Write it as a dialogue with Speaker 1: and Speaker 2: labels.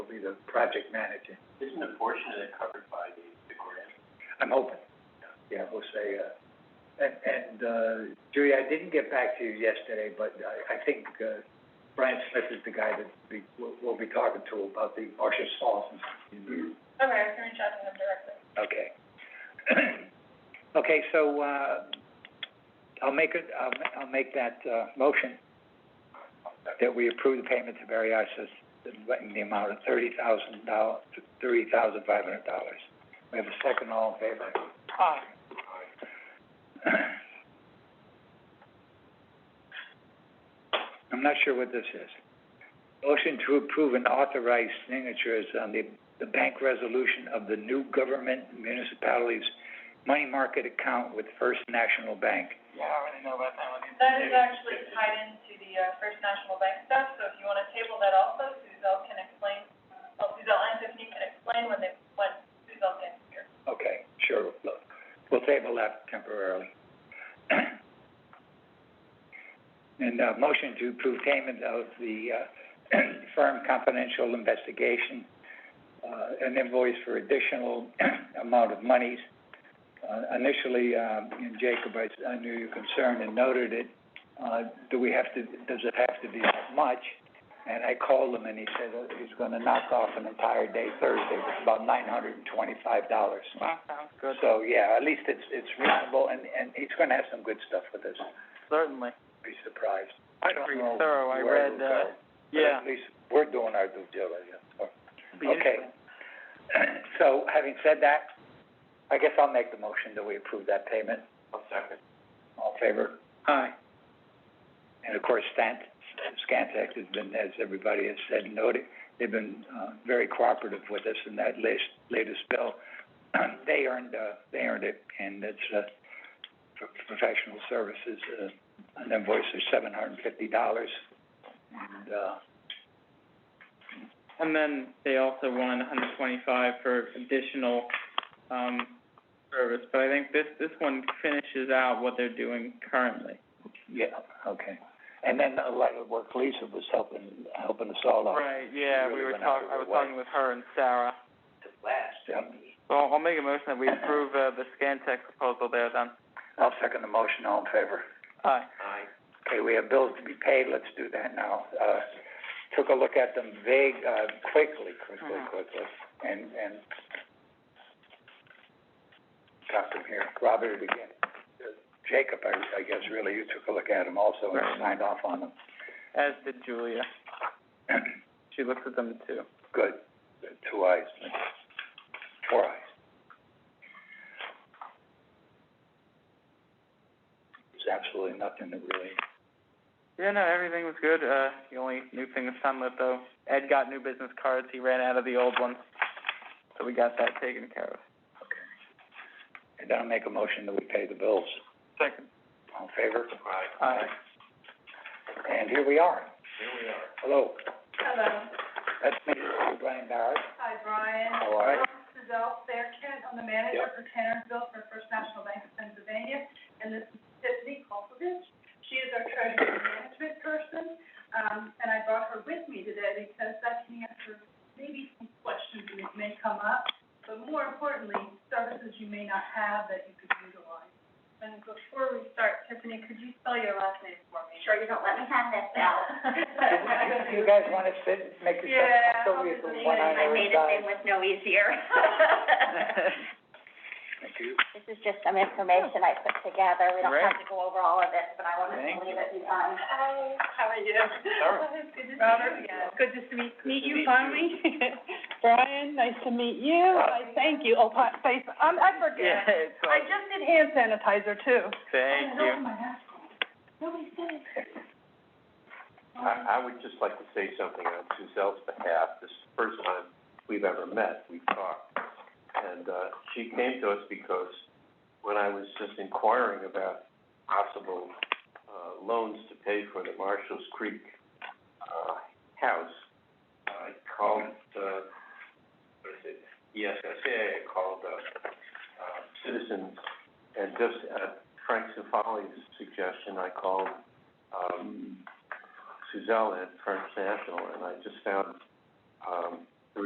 Speaker 1: be the project manager.
Speaker 2: Isn't a portion of that covered by the, the grant?
Speaker 1: I'm hoping. Yeah, we'll say, uh, and, and, uh, Julie, I didn't get back to you yesterday, but I, I think, uh, Brian Smith is the guy that we, we'll, we'll be talking to about the Marcia Falls.
Speaker 3: Okay, I can reach out to them directly.
Speaker 1: Okay. Okay, so, uh, I'll make it, I'll, ma- I'll make that, uh, motion that we approve the payment to Barry Isis in the amount of thirty thousand dollars, thirty thousand five hundred dollars. We have a second, all in favor?
Speaker 3: Aye.
Speaker 1: I'm not sure what this is. Motion to approve and authorize signatures on the, the bank resolution of the new government municipalities money market account with First National Bank.
Speaker 2: Yeah, I already know about that one.
Speaker 3: That is actually tied into the, uh, First National Bank stuff, so if you wanna table that also, Suzelle can explain, well, Suzelle and Tiffany can explain when they, when Suzelle gets here.
Speaker 1: Okay, sure, look, we'll table that temporarily. And, uh, motion to approve payment of the, uh, firm confidential investigation, uh, an invoice for additional amount of monies. Uh, initially, um, and Jacob, I, I knew your concern and noted it, uh, do we have to, does it have to be that much? And I called him and he said, uh, he's gonna knock off an entire day Thursday, it's about nine hundred and twenty-five dollars.
Speaker 2: Wow, sounds good,
Speaker 1: So, yeah, at least it's, it's reasonable, and, and he's gonna have some good stuff with this,
Speaker 2: certainly.
Speaker 1: be surprised.
Speaker 2: I
Speaker 1: don't
Speaker 2: pretty
Speaker 1: know
Speaker 2: thorough, I
Speaker 1: where it'll
Speaker 2: read, uh,
Speaker 1: go, but
Speaker 2: yeah.
Speaker 1: At least we're doing our due diligence, so.
Speaker 2: Be
Speaker 1: Okay.
Speaker 2: interesting.
Speaker 1: So, having said that, I guess I'll make the motion that we approve that payment,
Speaker 2: One second.
Speaker 1: all in favor? Aye. And of course, Stan, Scantek has been, as everybody has said, and noted, they've been, uh, very cooperative with us in that latest, latest bill. They earned, uh, they earned it, and it's, uh, for professional services, uh, an invoice of seven hundred and fifty dollars. And, uh,
Speaker 2: And then they also won hundred twenty-five for additional, um, service, but I think this, this one finishes out what they're doing currently.
Speaker 1: yeah, okay. And then a lot of work Lisa was helping, helping us all out.
Speaker 2: Right, yeah, we
Speaker 1: Really
Speaker 2: were
Speaker 1: went out
Speaker 2: talk,
Speaker 1: of
Speaker 2: I
Speaker 1: their
Speaker 2: was
Speaker 1: way.
Speaker 2: talking with her and Sarah.
Speaker 1: To last, um,
Speaker 2: So I'll, I'll make a motion that we approve, uh, the Scantech proposal there then.
Speaker 1: I'll second the motion, all in favor?
Speaker 2: Aye.
Speaker 1: Okay, we have bills to be paid, let's do that now. Uh, took a look at them vague, uh, quickly, quickly,
Speaker 2: Mhm.
Speaker 1: quickly, and, and got them here. Robert, again, uh, Jacob, I, I guess, really, you took a look at them also and
Speaker 2: Right.
Speaker 1: signed off on them.
Speaker 2: As did Julia. She looks at them too.
Speaker 1: Good, two eyes, four eyes. There's absolutely nothing that really
Speaker 2: Yeah, no, everything was good. Uh, the only new thing is sunlit though. Ed got new business cards. He ran out of the old ones. So we got that taken care of.
Speaker 1: And then I'll make a motion that we pay the bills.
Speaker 2: Second.
Speaker 1: All in favor?
Speaker 2: Aye.
Speaker 1: And here we are. Here we are. Hello,
Speaker 3: Hello.
Speaker 1: that's me, Brian Barrett.
Speaker 3: Hi, Brian.
Speaker 1: How are you?
Speaker 3: Suzelle Fairkent, I'm the manager for Tannersville for First National Bank of Pennsylvania, and this is Tiffany Kolkovich. She is our treasury management person, um, and I brought her with me today because that can answer maybe some questions that may come up, but more importantly, services you may not have that you could utilize. And before we start, Tiffany, could you spell your last name for me? Sure, you don't let me have that spell.
Speaker 1: Do you guys wanna sit, and make
Speaker 3: Yeah,
Speaker 1: yourself comfortable, we have
Speaker 3: I'll be
Speaker 1: one on
Speaker 4: I
Speaker 1: every
Speaker 4: made it
Speaker 1: side.
Speaker 4: seem was no easier.
Speaker 1: Thank you.
Speaker 4: This is just some information I put together, we don't have to go over all of this, but I wanted
Speaker 2: Thank
Speaker 4: to leave it behind.
Speaker 3: Hi, how are you?
Speaker 2: Sarah.
Speaker 3: Good to see you again.
Speaker 5: Good to meet, meet
Speaker 2: meet you.
Speaker 5: you finally. Brian, nice to meet you. I thank you. Oh, pa- face, I'm, I
Speaker 2: Yeah,
Speaker 5: forget.
Speaker 2: it's
Speaker 5: I
Speaker 2: all,
Speaker 5: just did hand sanitizer too.
Speaker 2: thank
Speaker 3: Oh,
Speaker 2: you.
Speaker 6: I, I would just like to say something on Suzelle's behalf. This is the first time we've ever met, we've talked. And, uh, she came to us because when I was just inquiring about possible, uh, loans to pay for the Marshall's Creek, uh, house, I called, uh, what is it? E Yes, I say I called, uh, uh, Citizens, and just at Frank Cifali's suggestion, I called, um, Suzelle at French National, and I just found, um,